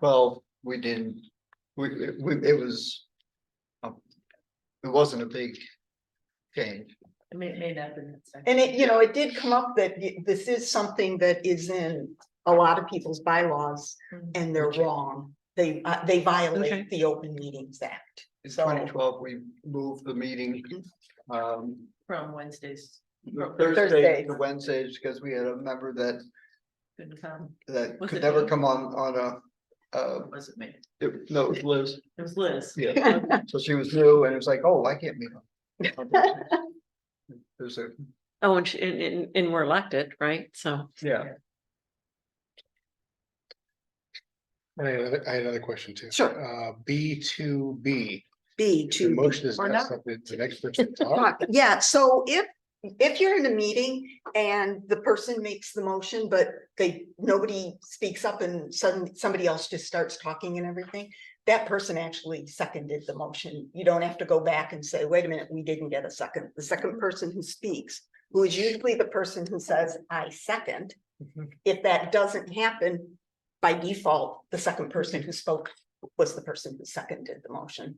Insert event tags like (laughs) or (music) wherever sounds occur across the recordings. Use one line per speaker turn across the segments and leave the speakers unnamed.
Well, we didn't, we, it- we, it was. um, It wasn't a big change.
It may, may not be. necessary.
And it, you know, it did come up that y- this is something that is in a lot of people's bylaws
Mhm.
and they're wrong. They, uh, they
Okay.
violate the Open Meetings Act.
In
So-
twenty twelve, we moved the meeting, um,
From Wednesdays,
Thursday
Thursdays.
to Wednesdays, because we had a member that,
couldn't come,
that
Was
could
it
never
me?
come on, on a. Uh,
It wasn't me,
it- no, it was Liz,
it was Liz.
yeah,
(laughs) Okay.
so she was new, and it was like, oh, I can't meet (laughs) on. There's a,
Oh, and, she- and, and, and we're elected, right? So,
yeah,
I had another, I had another question too.
Sure.
Uh, B two B,
B
the
to.
motion is
Or
not
not.
something
(laughs)
the next person to talk.
Fuck, Uh, Yeah, so if, if you're in a meeting and the person makes the motion, but they, nobody speaks up and suddenly somebody else just starts talking and everything. That person actually seconded the motion. You don't have to go back and say, wait a minute, we didn't get a second. The second person who speaks, who is usually the person who says, I second.
Mhm.
If that doesn't happen, by default, the second person who spoke was the person who seconded the motion.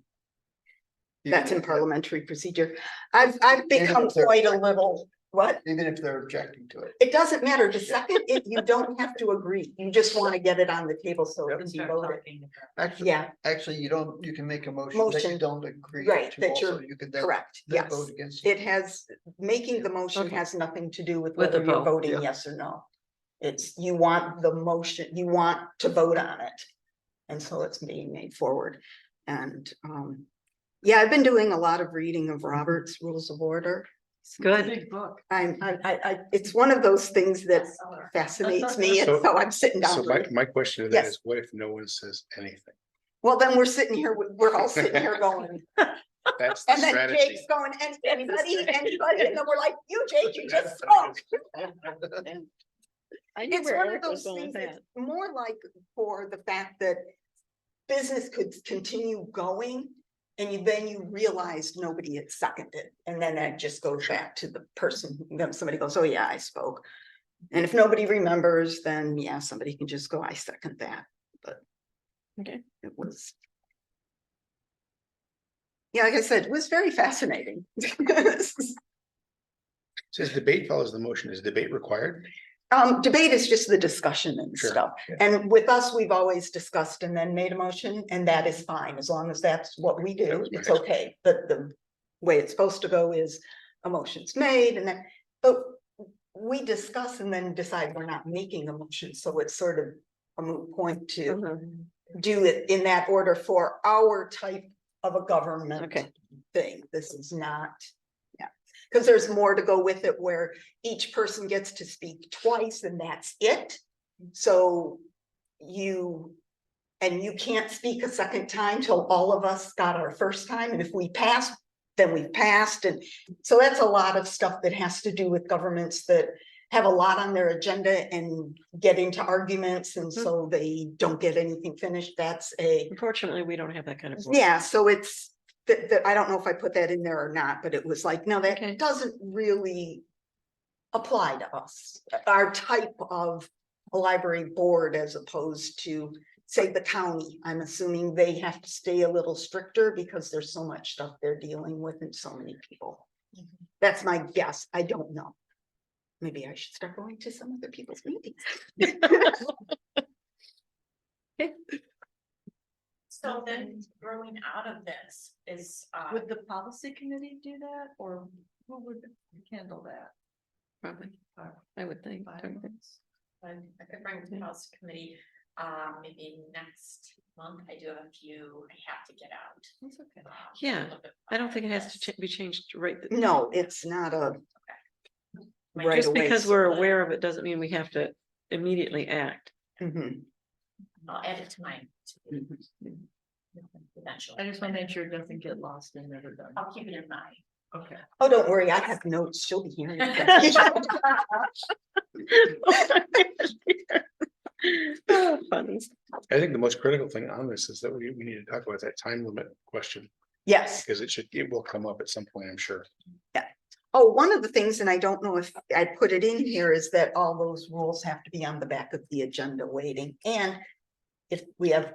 That's in
even-
parliamentary procedure. I've, I've become
if they're-
quite a little, what?
even if they're objecting to it.
It doesn't matter. The second, it, you don't have to agree. You just want to get it on the table so it
And
can be
start
voted.
talking about-
Actually,
Yeah,
actually, you don't, you can make a motion that you
Motion.
don't agree to
Right, that
also,
you're-
you could then.
correct.
then
Yes.
Vote against.
It has, making the motion
Okay.
has nothing to do with
With the
whether you're
vote,
yeah.
voting yes or no. It's, you want the motion, you want to vote on it. And so it's being made forward. And, um, yeah, I've been doing a lot of reading of Robert's Rules of Order.
it's good.
Big book.
I'm, I, I, I, it's one of those things that
Bestseller.
fascinates me, and
So-
so I'm sitting
So
down.
my,
reading.
my question to that
Yes.
is, what if no one says anything?
(laughs) Well, then we're sitting here, we- we're all sitting
(laughs)
here going,
That's the
and then
strategy.
Jake's going, "An- anybody,
strategy.
anybody, and then we're like, you, Jake, you just spoke. It's one of those things that's more like for the fact that business could continue going, and you, then you realize nobody had seconded, and then that just goes back to the person, who- then somebody goes, oh, yeah, I spoke. And if nobody remembers, then yeah, somebody can just go, I second that, but.
Okay.
It was. Yeah, like I said, it was very fascinating. (laughs)
Says debate follows the motion. Is debate required?
Um, debate is just the discussion and
Sure,
stuff.
yeah.
And with us, we've always discussed and then made a motion, and that is fine, as long as that's what we
That
do,
was my
it's
next
okay. But the way it's supposed to go is a motion's made and then, but we discuss and then decide we're not making a motion, so it's sort of a moot point
Mm-hmm.
to
Uh-huh.
do it in that order for our type of a government.
Okay.
Thing, this is not, yeah, because there's more to go with it where each person gets to speak twice and that's it. So you, and you can't speak a second time till all of us got our first time, and if we pass, then we passed, and so that's a lot of stuff that has to do with governments that have a lot on their agenda and get into arguments, and so they don't get anything finished, that's a,
Unfortunately, we don't have that kind of.
(laughs)
board.
yeah, so it's, that, that, I don't know if I put that in there or not, but it was like, no,
Okay.
that doesn't really apply to us, our type of a library board as opposed to, say, the county. I'm assuming they have to stay a little stricter because there's so much stuff they're dealing with and so many people. That's my guess. I don't know. Maybe I should start going to some other people's meetings.
So then growing out of this is, uh,
Would the policy committee do that, or who would handle that?
Probably, I would think. don't you
Bylaws?
I I could bring it to the policy committee, uh, maybe next month. I do have a few I have to get out.
That's okay.
um, a
Yeah,
little bit
I don't think it has to
this.
cha- be changed right. th-
No, it's not a
My-
right
Just
away
because we're
split.
aware of it doesn't mean we have to immediately act.
Mhm.
I'll add it to mine. to-
Mm-hmm. I
Eventually,
just want to make sure it doesn't get lost and never
(laughs)
done.
I'll keep it in mind.
Okay.
Oh, don't worry, I have notes. She'll be hearing. that.
Oh, (laughs) funny.
I think the most critical thing on this is that we, we need to talk about that time limit question,
Yes.
because it should, it will come up at some point, I'm sure.
Oh, one of the things, and I don't know if I put it in here, is that all those rules have to be on the back of the agenda waiting, and if we have